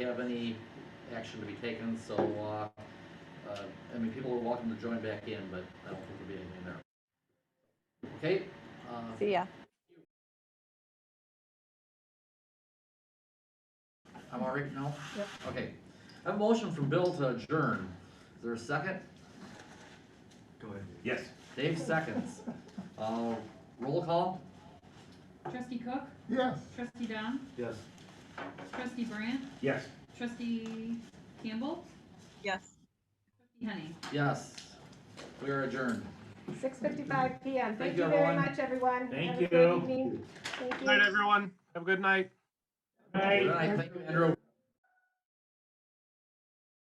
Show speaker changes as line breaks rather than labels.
have any action to be taken, so, uh, uh, I mean, people are welcome to join back in, but I don't think there'll be anything there. Okay, uh,
See ya.
I'm all right now?
Yep.
Okay. I have a motion from Bill to adjourn. Is there a second?
Go ahead.
Yes.
Dave seconds. Uh, roll call?
Trustee Cook,
Yes.
trustee Dom,
Yes.
trustee Brandt,
Yes.
trustee Campbell,
Yes.
trustee Henning.
Yes. We are adjourned.
Six fifty-five PM.
Thank
Thank
you,
you very
everyone.
much, everyone.
Thank
Have a great
you.
evening. Thank you.
Good night, everyone. Have a good night.
Good night. Thank you, Andrew.